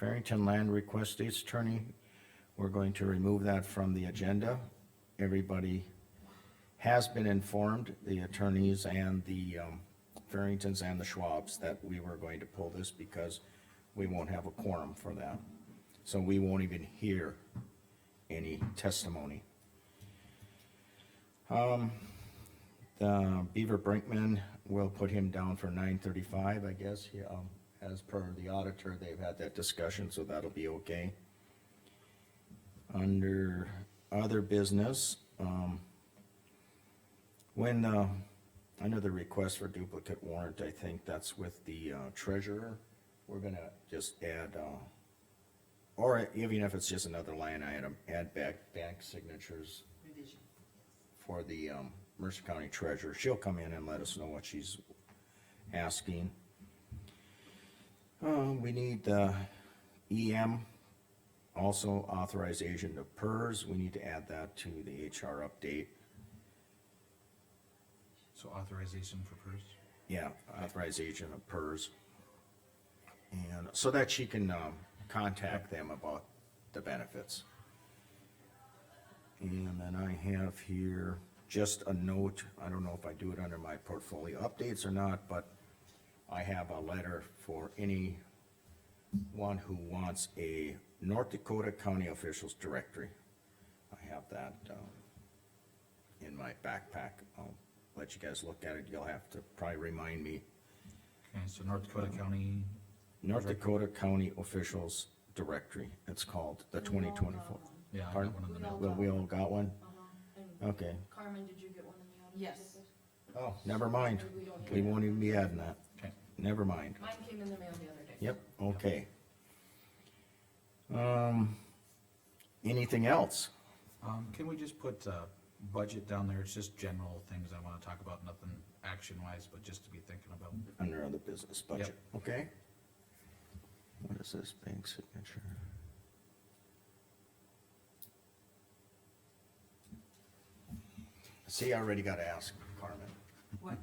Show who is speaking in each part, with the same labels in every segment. Speaker 1: Farrington Land Request State's Attorney, we're going to remove that from the agenda. Everybody has been informed, the attorneys and the, um, Farringtons and the Schwabs, that we were going to pull this because we won't have a quorum for that. So we won't even hear any testimony. Um, the Beaver Brinkman, we'll put him down for nine thirty-five, I guess, yeah, um, as per the auditor, they've had that discussion, so that'll be okay. Under other business, um, when, uh, under the request for duplicate warrant, I think that's with the uh, treasurer, we're gonna just add, uh, or even if it's just another line item, add back bank signatures
Speaker 2: revision.
Speaker 1: for the, um, Mercer County Treasurer. She'll come in and let us know what she's asking. Uh, we need, uh, EM, also authorization to PERS. We need to add that to the HR update.
Speaker 3: So authorization for PERS?
Speaker 1: Yeah, authorization of PERS. And so that she can, um, contact them about the benefits. And then I have here just a note, I don't know if I do it under my portfolio updates or not, but I have a letter for any one who wants a North Dakota County Officials Directory. I have that, um, in my backpack. I'll let you guys look at it. You'll have to probably remind me.
Speaker 3: Okay, so North Dakota County,
Speaker 1: North Dakota County Officials Directory, it's called, the twenty twenty-four.
Speaker 3: yeah, I
Speaker 1: Pardon?
Speaker 3: got one in the
Speaker 4: We all
Speaker 3: mail.
Speaker 1: Well, we all got one?
Speaker 4: Uh-huh, and
Speaker 1: Okay.
Speaker 4: Carmen, did you get one in the auto?
Speaker 2: Yes.
Speaker 1: Oh, never mind.
Speaker 4: We don't
Speaker 1: We
Speaker 4: need
Speaker 1: won't even be adding that.
Speaker 3: Okay,
Speaker 1: Never mind.
Speaker 4: Mine came in the mail the other day.
Speaker 1: Yep, okay. Um, anything else?
Speaker 3: um, can we just put, uh, budget down there? It's just general things I wanna talk about, nothing action-wise, but just to be thinking about.
Speaker 1: Under other business budget, okay? What is this bank signature? See, I already got to ask Carmen.
Speaker 2: What?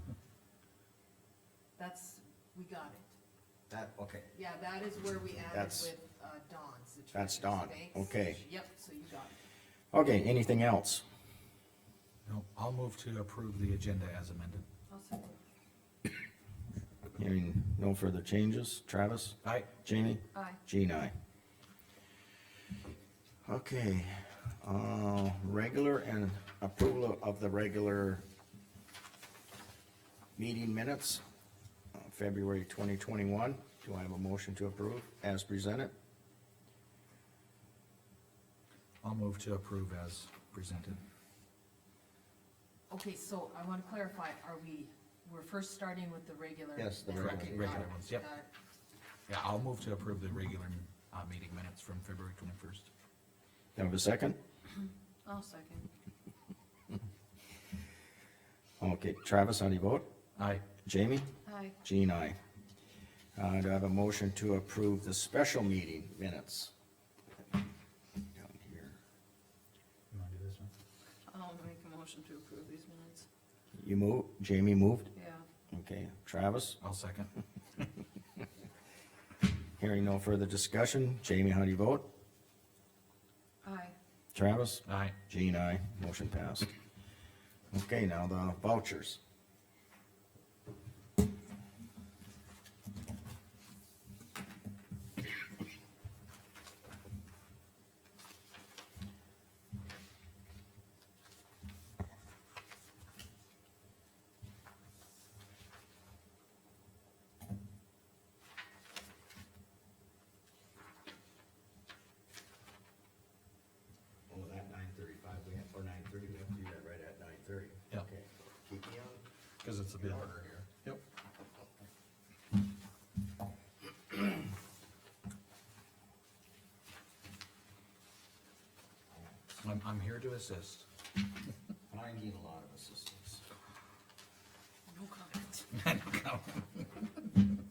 Speaker 2: That's, we got it.
Speaker 1: That, okay.
Speaker 2: Yeah, that is where we added
Speaker 1: That's-
Speaker 2: with uh, Dawn's. the
Speaker 1: That's
Speaker 2: Treasury's
Speaker 1: Dawn,
Speaker 2: banks.
Speaker 1: okay.
Speaker 2: Yep, so you got it.
Speaker 1: Okay, anything else?
Speaker 3: No, I'll move to approve the agenda as amended.
Speaker 4: I'll second.
Speaker 1: Hearing no further changes, Travis,
Speaker 3: Aye.
Speaker 1: Jamie,
Speaker 4: Aye.
Speaker 1: Jean, I. Okay, uh, regular and approval of the regular meeting minutes, uh, February twenty twenty-one. Do I have a motion to approve as presented?
Speaker 3: I'll move to approve as presented.
Speaker 2: Okay, so I wanna clarify, are we, we're first starting with the regular?
Speaker 1: Yes, the
Speaker 2: Okay,
Speaker 1: regular.
Speaker 2: got it,
Speaker 3: Regular ones, yep.
Speaker 2: got it.
Speaker 3: Yeah, I'll move to approve the regular, uh, meeting minutes from February twenty-first.
Speaker 1: Do I have a second?
Speaker 4: I'll second.
Speaker 1: Okay, Travis, how do you vote?
Speaker 3: Aye.
Speaker 1: Jamie?
Speaker 4: Aye.
Speaker 1: Jean, I. Uh, do I have a motion to approve the special meeting minutes? Down here.
Speaker 3: You wanna do this one?
Speaker 4: I'll make a motion to approve these minutes.
Speaker 1: You move, Jamie moved,
Speaker 4: Yeah.
Speaker 1: okay, Travis,
Speaker 3: I'll second.
Speaker 1: hearing no further discussion, Jamie, how do you vote?
Speaker 4: Aye.
Speaker 1: Travis?
Speaker 3: Aye.
Speaker 1: Jean, I, motion passed. Okay, now the vouchers. Oh, that nine thirty-five, we have, or nine thirty, we have to do that right at nine thirty.
Speaker 3: Yeah.
Speaker 1: Okay. Keep me on.
Speaker 3: Cause it's a bit.
Speaker 1: order here.
Speaker 3: Yep. I'm, I'm here to assist.
Speaker 1: I need a lot of assistance.
Speaker 4: No comment.